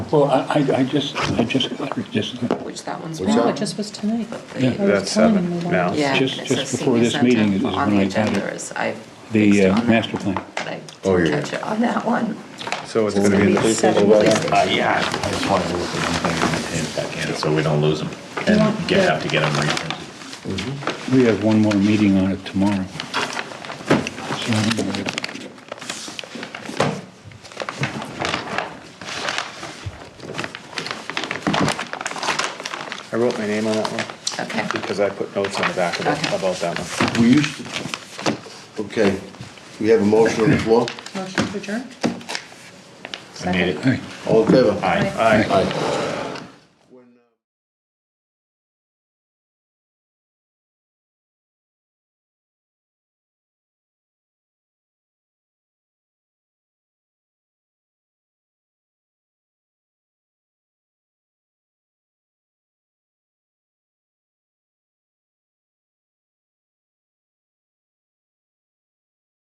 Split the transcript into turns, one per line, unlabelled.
Well, I, I I just, I just, got it, just,
Which that one's.
What's
wrong.
No,
that?
it just was tonight.
Yeah.
I was
That's
telling
seven
him that I-
now.
Yeah.
Just-
it
just
says
before this
senior center
meeting is when
on the
I got it.
agenda is- I fixed
the
it
uh,
on that,
master plan.
But I
Oh,
didn't
yeah.
catch it on that one.
So it's
It's
gonna be
gonna
in the
be
police
seven
station.
places.
Uh, yeah, I just wanted to look at one thing and back in, so we don't lose them,
Yeah.
and get, have to get them reprinted.
We have one more meeting on it tomorrow. So,
I wrote my name on that one
Okay,
because I put notes on the back of it
Okay.
about that one.
We used to,
Okay, we have a motion on the floor.
motion to adjourn?
I made it.
Hey.
All in favor?
Aye.
Aye.